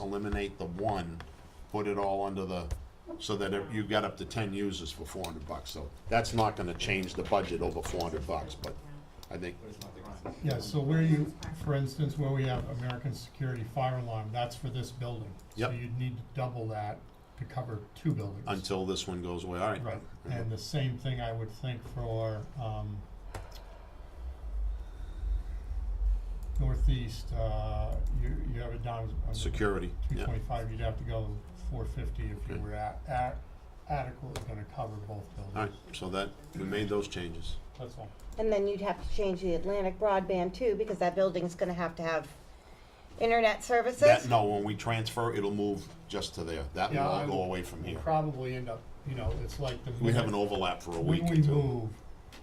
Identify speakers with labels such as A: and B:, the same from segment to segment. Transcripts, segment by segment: A: eliminate the one, put it all under the, so that if you got up to ten users for four hundred bucks, so that's not gonna change the budget over four hundred bucks, but I think,
B: Yeah, so where you, for instance, where we have American Security Fire Alarm, that's for this building. So
A: Yep.
B: you'd need to double that to cover two buildings.
A: until this one goes away, all right.
B: Right, and the same thing I would think for, um, northeast, uh, you, you have it down as.
A: Security,
B: Two
A: yeah,
B: twenty-five, you'd have to go four fifty if you
A: Okay.
B: were at, at, adequately gonna cover both
A: all right,
B: buildings,
A: so that, we made those changes.
B: that's all.
C: And then you'd have to change the Atlantic broadband too, because that building's gonna have to have internet
A: That,
C: services.
A: no, when we transfer, it'll move just to there, that will
B: Yeah,
A: all
B: I
A: go
B: would-
A: away from here.
B: Probably end up, you know, it's like the.
A: We have an overlap for a week
B: When
A: or
B: we
A: two.
B: move,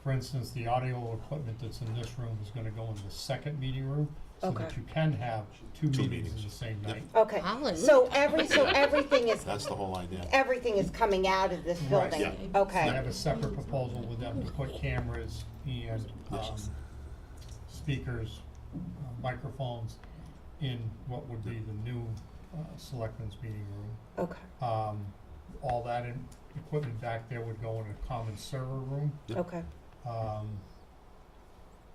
B: for instance, the audio equipment that's in this room is gonna go in the second meeting room, so that
C: Okay.
B: you can have two
A: Two
B: meetings in the
A: meetings.
B: same
A: Yep.
B: night.
C: Okay,
D: Hallelujah.
C: so every, so everything is,
A: That's the whole idea.
C: everything is coming out of this
B: Right.
C: building,
A: Yeah.
B: I
C: okay,
B: have a separate proposal with them to put cameras and, um, speakers, uh, microphones in what would be the new, uh, selectmen's meeting room.
C: okay,
B: Um, all that in, equipment back there would go in a common server room,
A: Yep.
C: okay.
B: um,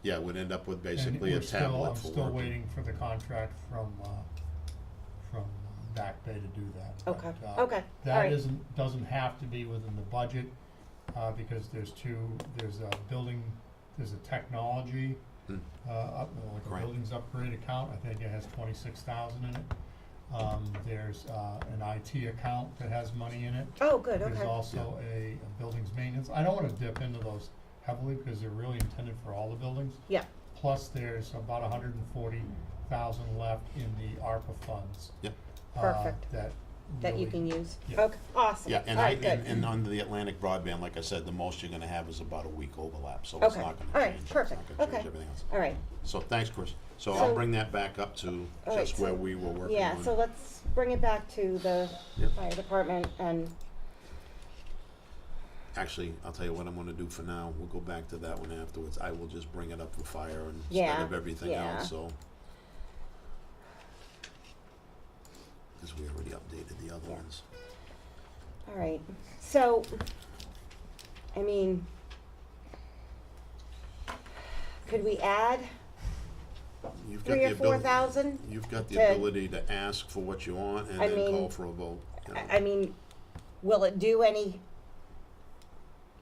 A: Yeah, we'd end up with
B: and
A: basically a
B: we're still-
A: tablet for
B: I'm still
A: working.
B: waiting for the contract from, uh, from uh, Back Bay to do that. but,
C: Okay,
B: uh,
C: okay, all
B: That
C: right.
B: isn't, doesn't have to be within the budget, uh, because there's two, there's a building, there's a technology,
A: Hmm.
B: uh, up, like a
A: Right.
B: buildings upgrade account, I think it has twenty-six thousand in it. Um, there's, uh, an IT account that has money in it.
C: Oh, good,
B: There's
C: okay,
B: also a, a buildings maintenance, I don't wanna dip into those heavily, because they're really intended for all the buildings.
C: yeah,
B: Plus, there's about hundred and forty thousand left in the ARPA funds.
A: Yep.
B: uh,
C: Perfect.
B: That.
C: that you
B: really-
C: can use,
B: Yeah.
C: okay, awesome,
A: Yeah,
C: all
A: and I,
C: right,
A: and, and
C: good.
A: under the Atlantic broadband, like I said, the most you're gonna have is about a week overlap, so it's
C: Okay,
A: not
C: all
A: gonna
C: right,
A: change. It's
C: perfect,
A: not gonna change
C: okay.
A: everything else.
C: All right,
A: So thanks, Chris. So
C: So-
A: I'll bring that back up to
C: All right,
A: just
C: so-
A: where we were working on.
C: yeah, so let's bring it back to the
A: Yep.
C: fire department and,
A: Actually, I'll tell you what I'm gonna do for now. We'll go back to that one afterwards. I will just bring it up for fire and instead
C: Yeah,
A: of everything
C: yeah.
A: else, so. Cause we already updated the other
C: Yeah.
A: ones.
C: all right, so, I mean, could we add
A: You've got
C: three
A: the
C: or four
A: ability,
C: thousand?
A: you've got the
C: to-
A: ability to ask for what you want and
C: I
A: then
C: mean,
A: call for a vote. you know.
C: I I mean, will it do any,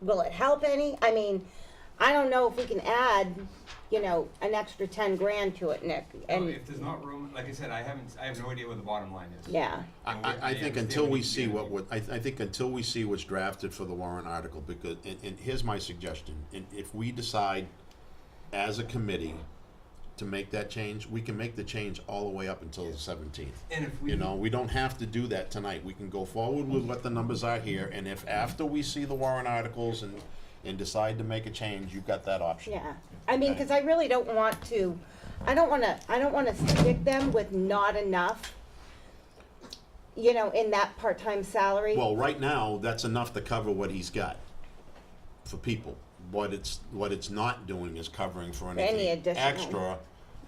C: will it help any? I mean, I don't know if we can add, you know, an extra ten grand to it, Nick,
E: Well,
C: and,
E: Oh, if there's not room, like I said, I haven't, I have no idea what the bottom line is.
C: yeah,
A: I,
E: And we-
A: I, I
E: and
A: think
E: we
A: until we
E: need to
A: see
E: do
A: what,
E: it.
A: would- I, I think until we see what's drafted for the warrant article, because, and, and here's my suggestion, and if we decide as a committee to make that change, we can make the change all the way up until the seventeenth.
E: And if we,
A: You know, we don't have to do that tonight, we can go forward with what the numbers are here, and if after we see the warrant articles and, and decide to make a change, you've got that option.
C: yeah. I mean, cause I really don't want to, I don't wanna, I don't wanna stick them with not enough, you know, in that part-time salary.
A: Well, right now, that's enough to cover what he's got for people. What it's, what it's not doing is covering for
C: Any
A: anything
C: additional.
A: extra,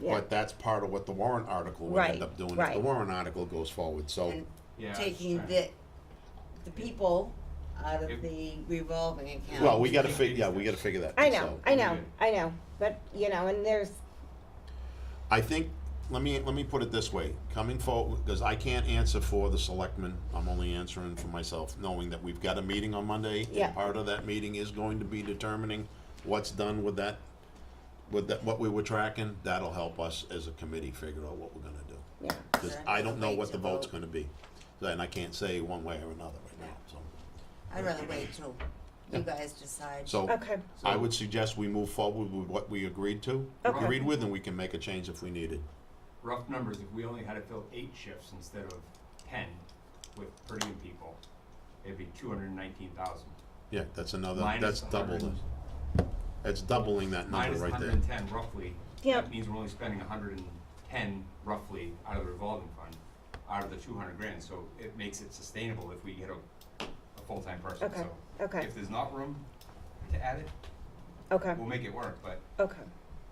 C: Yeah.
A: but that's part of what the warrant article would
C: Right,
A: end up doing if the
C: right.
A: warrant article goes forward, so.
D: And
E: yeah,
D: taking
E: right.
D: the, the people out of
E: If-
D: the revolving account.
A: Well, we gotta fig, yeah, we gotta figure that.
C: um, I know,
A: so.
C: I know, I know, but, you know, and there's,
A: I think, let me, let me put it this way, coming forward, because I can't answer for the selectmen, I'm only answering for myself, knowing that we've got a meeting on Monday.
C: Yeah.
A: And part of that meeting is going to be determining what's done with that, with that, what we were tracking, that'll help us as a committee figure out what we're gonna do.
C: yeah,
A: Because I don't know what the vote's
D: Right.
A: gonna be, and I can't say one way or another right now, so.
D: I'd rather wait till you guys decide.
A: So,
C: okay,
A: I would suggest we move forward with what we agreed to,
C: Okay.
A: agreed with, and we can make a change if we needed.
E: Rough numbers, if we only had to fill eight shifts instead of ten with per diem people, it'd be two hundred and nineteen thousand.
A: Yeah, that's another,
E: Minus
A: that's
E: the
A: double,
E: hundred,
A: the- that's doubling that number
E: minus the
A: right
E: hundred
A: there.
E: and ten roughly.
C: Yep.
E: That means we're only spending hundred and ten roughly out of the revolving fund, out of the two hundred grand, so it makes it sustainable if we get a, a full-time person,
C: Okay,
E: so.
C: okay.
E: If there's not room to add it,
C: okay,
E: we'll make it work, but
C: okay.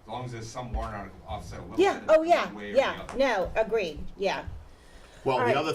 E: As long as there's some warrant article offset a little bit.
C: Yeah, oh, yeah,
E: one way or the
C: yeah,
E: other.
C: no, agreed, yeah.
A: Well,
C: All
A: the
C: right.
A: other